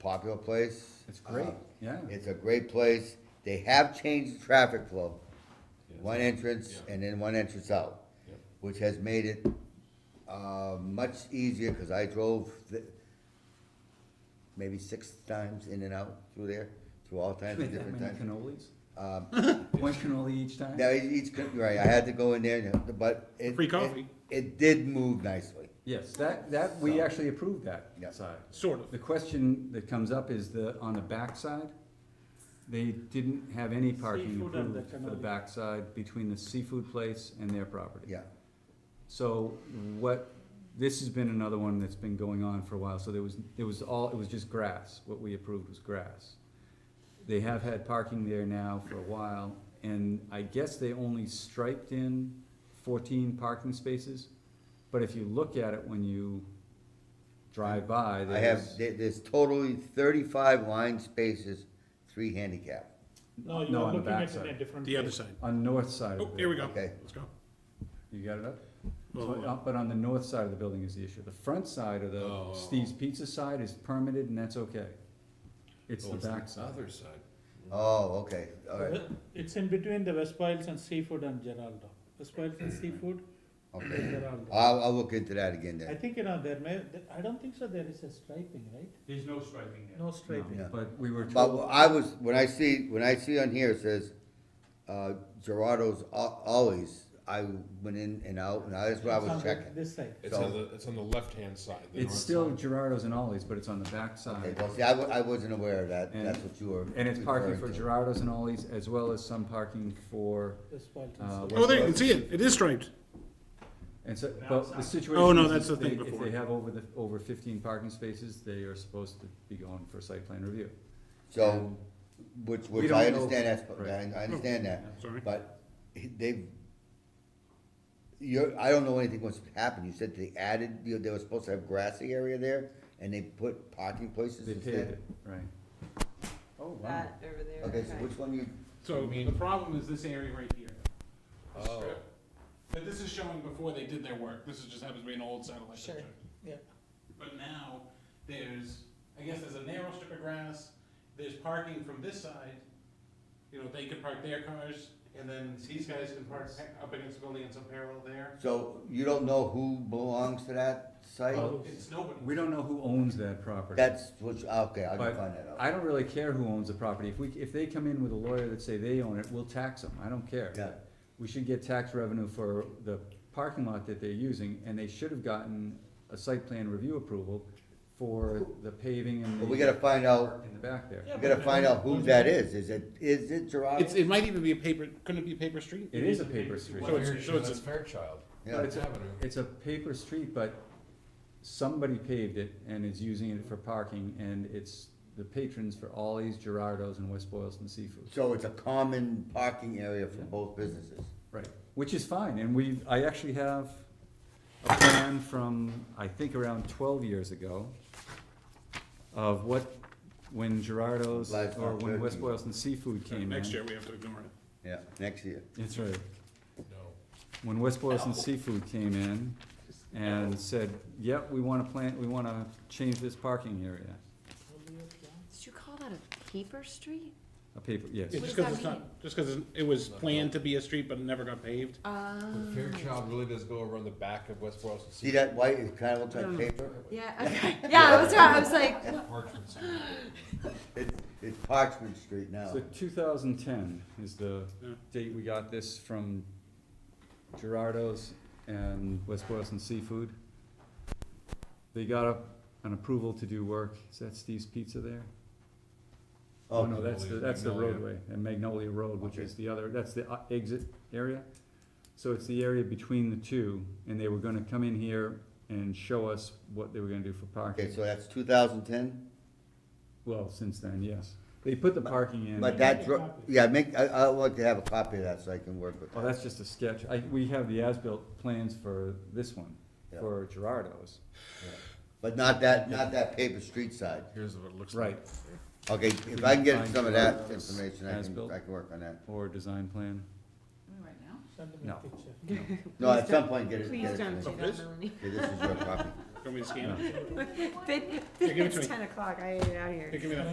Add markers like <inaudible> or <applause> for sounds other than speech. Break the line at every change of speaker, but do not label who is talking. popular place.
It's great,
Uh,
yeah.
It's a great place. They have changed the traffic flow.
Yeah.
One entrance
Yeah.
and then one entrance out,
Yep.
which has made it, uh, much easier, cause I drove th- maybe six times in and out through there, through all
Wait,
kinds of
that
different
many
times.
cannolis?
Um,
<laughs> One cannoli each time?
Now, each, each, con- right, I had to go in there, and- but it.
Free
it-
coffee.
It did move nicely.
Yes, that, that, we
So-
actually approved that
Yeah.
side.
Sort of.
The question that comes up is the, on the backside, they didn't have any parking
Seafood and the
approved for the
cannoli.
backside between the seafood place and their property.
Yeah,
So what, this has been another one that's been going on for a while, so there was, there was all, it was just grass, what we approved was grass. They have had parking there now for a while, and I guess they only striped in fourteen parking spaces. But if you look at it when you drive by,
I have,
there's,
there- there's totally thirty-five line spaces, three handicap,
No, you
No,
are
on the
looking at it
backside.
in a different.
The other
place.
side.
on north side of the
Oh,
building.
here we go.
Okay.
Let's go.
You got it up? So, uh,
Oh,
But on the north side of the building is the issue. The front side of the
Oh.
Steve's Pizza side is permitted and that's okay. It's
Oh,
the back side.
Other side.
oh, okay, alright,
It's in between the West Piles and Seafood and Geraldo. West Piles and Seafood,
okay, Ah,
Geraldo.
I'll, I'll look into that again
I
then,
think, you know, there may, there- I don't think so there is a striping, right?
There's no striping there.
No
No,
striping.
Yeah.
But we were
but
told,
I was, when I see, when I see on here, it says, uh, Gerardo's Al- Ollies, I went in and out, and that's what I
It's on
was
the-
checking.
This side.
It's on the, it's on the left-hand side. the
it's
north
still
side.
Gerardo's and Ollie's, but it's on the back
Okay,
side.
well, see, I, wa- I wasn't aware of that,
And-
that's what you were.
And it's parking for
referring to.
Gerardo's and Ollie's as well as some parking for,
West Piles and
Uh,
Seafood.
Oh, there, you can see it. It is striped.
and so, but the situation.
Oh, no,
is
that's
if
the thing
they-
before.
If they have over the, over fifteen parking spaces, they are supposed to be going for site plan review.
So,
And-
which,
We
which
don't
I
know-
understand, that's,
Right.
I, I understand that,
Sorry.
But they've, you're, I don't know anything what's happened, you said they added, you know, they were supposed to have grassy area there, and they put parking places
They paved
instead?
it, right. Oh, wow.
That over there,
Okay, so which one you,
So the problem is this area right here.
Oh,
But this is showing before they did their work. This is just happens to be an old satellite
Sure.
picture.
Yeah.
But now, there's, I guess there's a narrow strip of grass, there's parking from this side. You know, they can park their cars, and then these guys can park up against the building and some parallel there.
so you don't know who belongs to that site?
Oh.
It's nobody.
We don't know who owns that property.
That's, which, ah, okay, I
But
can find that out.
I don't really care who owns the property, if we, if they come in with a lawyer that say they own it, we'll tax them, I don't care.
Yeah.
We should get tax revenue for the parking lot that they're using, and they should have gotten a site plan review approval for the paving and the.
But we gotta find out,
In the back there.
Yeah,
we gotta
but-
find out who that is, is it, is it
It's,
Gerardo?
it might even be a paper, couldn't it be a paper street?
It is a paper street,
So it's- so it's-
That's Fairchild.
Yeah.
But it's a-
Avenue.
it's a paper street, but somebody paved it and is using it for parking, and it's the patrons for Ollie's, Gerardo's, and West Boylston Seafood.
So it's a common parking area for
Yeah.
both businesses?
Right, which is fine, and we, I actually have a plan from, I think around twelve years ago, of what, when Gerardo's
Live
or when
bird.
West Boylston Seafood came in.
Next year, we have to ignore it.
Yeah, next year.
That's right,
No.
when West Boylston Seafood came in and said, yep, we wanna plant, we wanna change this parking area,
Did you call that a paper street?
a paper, yes.
It's
What
just
does
because
that
it's not, just because it was
Not
planned to be a street, but it never got paved.
Um,
But Fairchild really does go around the back of West Boylston.
See that white, it kinda looks like paper?
Yeah, okay, yeah, I was right, I was like,
Parchment Street.
It's, it's Parchment Street now.
So two thousand ten is the
Yeah.
date we got this from Gerardo's and West Boylston Seafood. They got up an approval to do work, is that Steve's Pizza there? Oh, no, that's the, that's the
Magnolia.
roadway, and Magnolia Road, which is the other, that's the uh, exit area. So it's the area between the two, and they were gonna come in here and show us what they were gonna do for
Okay,
parking.
so that's two thousand ten,
Well, since then, yes, they put the parking in.
but that, dro- yeah, make, I, I would like to have a copy of that so I can work with
Oh,
that.
that's just a sketch. I, we have the as-built plans for this one,
Yeah.
for Gerardo's.
But not that, not that paper street side.
Here's what it looks like.
Right.
Okay, if
can
I can get
find
some of
you
that
those
information, I can,
as-built.
I can work on that.
Or design plan.
right now?
Send them
No.
a picture.
No, at some point, get it,
Please
get it. to
don't
me.
do that, Melanie. <laughs>
Okay, this is your copy.
Want me to scan it?
Then,
give it
then
to
it's
me.
ten o'clock, I ate it out of here.
Here, give me that.